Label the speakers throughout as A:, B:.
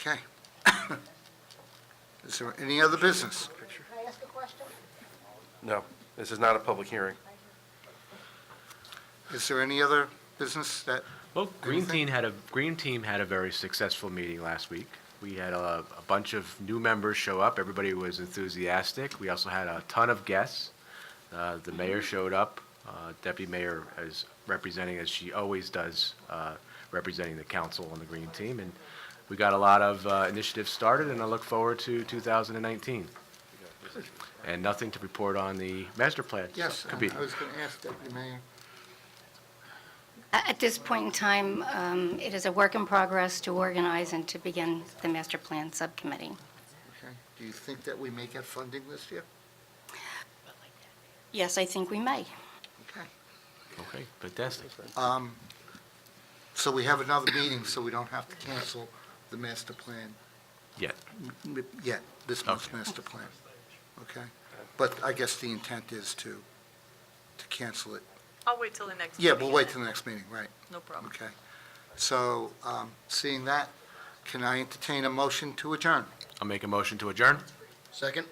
A: Okay. Is there any other business?
B: Can I ask a question?
C: No, this is not a public hearing.
A: Is there any other business that,
D: Well, Green
A: Anything?
D: Team had a, Green Team had a very successful meeting last week. We had a, a bunch of new members show up. Everybody was enthusiastic. We also had a ton of guests. Uh, the mayor showed up. Uh, Deputy Mayor is representing, as she always does, uh, representing the council on the Green Team. And we got a lot of uh, initiatives started, and I look forward to 2019. And nothing to report on the master plan.
A: yes, uh, I
D: Could be-
A: was going to ask Deputy Mayor.
E: At this point in time, um, it is a work in progress to organize and to begin the master plan subcommittee.
A: Okay. Do you think that we may get funding this year?
E: Yes, I think we may.
A: Okay.
D: Okay, fantastic.
A: Um, So we have another meeting, so we don't have to cancel the master plan
D: Yeah.
A: m- yet, this month's
D: Okay.
A: master plan. Okay? But I guess the intent is to, to cancel it.
F: I'll wait till the next.
A: Yeah,
F: meeting
A: we'll wait
F: then.
A: till the next meeting, right?
F: No problem.
A: Okay. So, um, seeing that, can I entertain a motion to adjourn?
D: I'll make a motion to adjourn.
A: Second.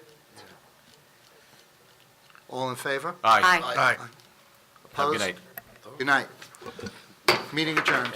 A: All in favor?
D: Aye.
E: Aye.
D: Have a good
A: Opposed?
D: night.
A: Good night. Meeting adjourned.